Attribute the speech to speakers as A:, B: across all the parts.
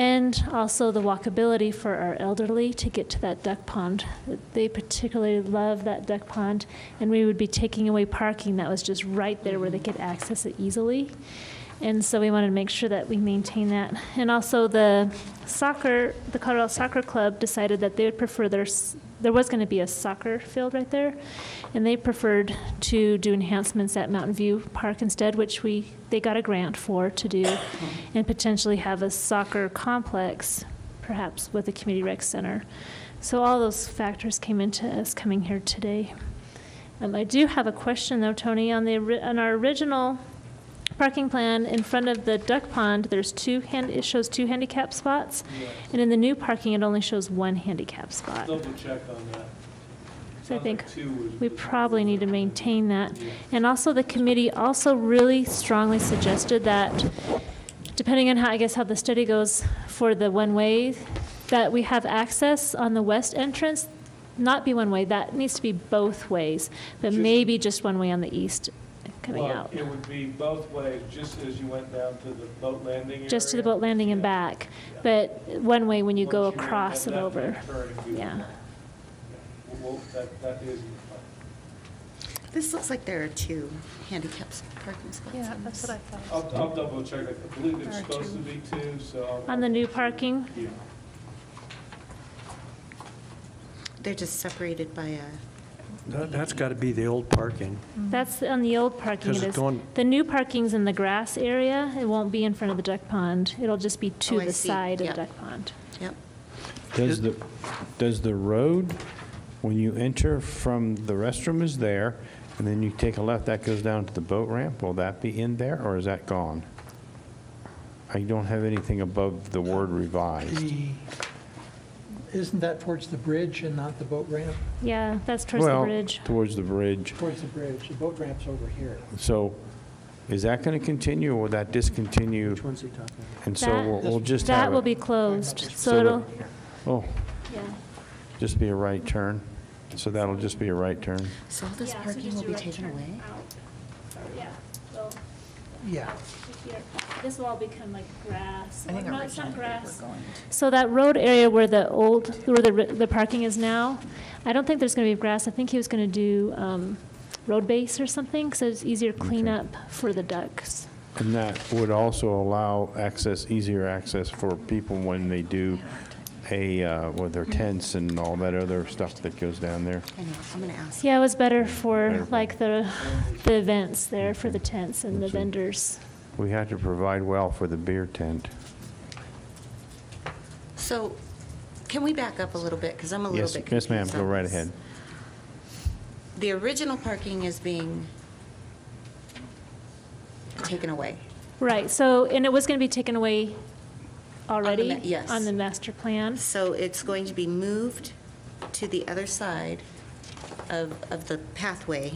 A: And also the walkability for our elderly to get to that duck pond. They particularly love that duck pond, and we would be taking away parking that was just right there where they could access it easily. And so we wanted to make sure that we maintain that. And also the soccer, the Colorado Soccer Club decided that they would prefer their, s- there was going to be a soccer field right there, and they preferred to do enhancements at Mountain View Park instead, which we, they got a grant for to do, and potentially have a soccer complex, perhaps with a community rec center. So all those factors came into us coming here today. Um, I do have a question though, Tony, on the, ori- on our original parking plan in front of the duck pond, there's two hand, it shows two handicap spots. And in the new parking, it only shows one handicap spot.
B: Double check on
A: So
B: that.
A: I
B: Sounds like
A: think
B: two was-
A: we
B: was-
A: probably need to maintain that.
B: Yeah.
A: And also, the committee also really strongly suggested that, depending on how, I guess, how the study goes for the one-way, that we have access on the west entrance, not be one-way, that needs to be both ways, but
B: Just-
A: maybe just one way on the east coming
B: Well,
A: out,
B: It would be both ways, just as you went down to the boat landing area.
A: just to the boat landing and
B: Yeah.
A: back, but one way when you
B: Once
A: go
B: made
A: across
B: that
A: and
B: left
A: over.
B: turn, you-
A: Yeah.
B: yeah. Well, that, that is in the plan.
C: This looks like there are two handicaps parking spots.
D: Yeah,
C: on
D: that's
C: this.
D: what I thought.
B: I'll, I'll double check. I believe it's
D: There are
B: supposed to
D: two.
B: be two, so. I'll-
A: On the new parking,
B: Yeah.
C: They're just separated by a,
E: That- That's got to be the old parking.
C: Mm.
A: That's on the old parking,
E: Because
A: it
E: it's
A: is.
E: going-
A: The new parking's in the grass area, it won't be in front of the duck pond, it'll just be to
C: Oh, I
A: the
C: see.
A: side of the
C: Yep.
A: duck pond.
C: yep.
F: Does the, does the road, when you enter from, the restroom is there, and then you take a left, that goes down to the boat ramp, will that be in there, or is that gone? I don't have anything above the word revised.
G: The, isn't that towards the bridge and not the boat ramp?
A: Yeah, that's towards the bridge.
F: Well, towards the bridge.
G: Towards the bridge, the boat ramp's over here.
F: So is that going to continue, or will that discontinue?
G: Which one's he talking about?
F: And so
A: That-
F: we'll we'll just have it.
A: That will be closed, so
F: So
A: it'll,
F: Oh,
A: yeah.
F: just be a right turn. So that'll just be a right turn.
C: So all this parking will be taken away?
A: Yeah, well,
G: Yeah.
A: this will all become like grass,
D: I think
A: No,
D: originally
A: it's
D: they
A: not
D: were
A: grass.
D: going
A: So that road area where the old, where the, the parking is now, I don't think there's gonna be grass, I think he was gonna do, um, road base or something, so it's easier cleanup for the ducks.
F: And that would also allow access, easier access for people when they do a, uh, with their tents and all that other stuff that goes down there.
C: I know, I'm going to ask.
A: Yeah, it was better for
F: Better.
A: like the, the events there for the tents and the
F: Okay.
A: vendors.
F: We had to provide well for the beer tent.
C: So can we back up a little bit, because I'm a little
F: Yes,
C: bit confused
F: yes, ma'am, go
C: on
F: right
C: this.
F: ahead.
C: The original parking is being taken away.
A: Right, so, and it was going to be taken away already?
C: ma- yes.
A: On the master plan?
C: So it's going to be moved to the other side of, of the pathway.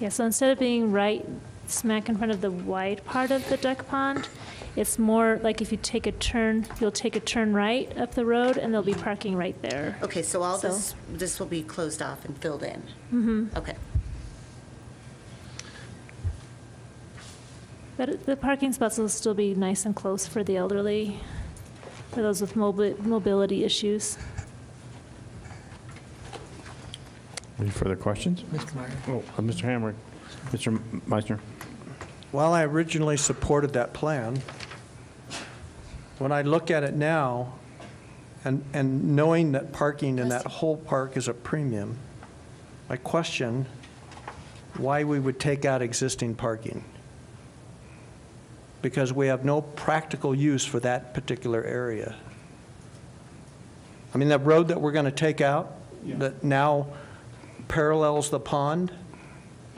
A: Yeah, so instead of being right smack in front of the wide part of the duck pond, it's more like if you take a turn, you'll take a turn right up the road and there'll be parking right there.
C: Okay, so all
A: So-
C: this, this will be closed off and filled in?
A: Mhm.
C: Okay.
A: But it- the parking spots will still be nice and close for the elderly, for those with mobi- mobility issues.
F: Any further questions?
G: Mr. Meyer?
F: Oh, uh, Mr. Hamrick, Mr. Meisner?
E: While I originally supported that plan, when I look at it now, and, and knowing that parking in that whole park is a premium, I question why we would take out existing parking. Because we have no practical use for that particular area. I mean, that road that we're going to take out, that now parallels the pond,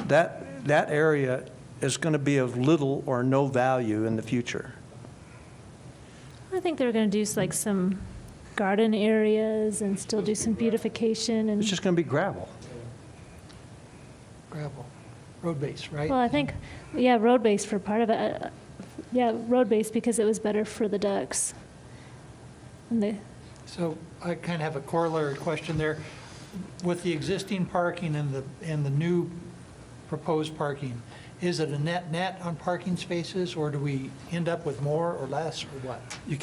E: that, that area is going to be of little or no value in the future.
A: I think they were going to do s- like some garden areas and still do some beautification and,
E: It's just going to be gravel.
G: Gravel, road base, right?
A: well, I think, yeah, road base for part of it. Uh, Yeah, road base because it was better for the ducks. And the,
G: So I kind of have a corollary question there. With the existing parking and the, and the new proposed parking, is it a net-net on parking spaces, or do we end up with more or less, or what?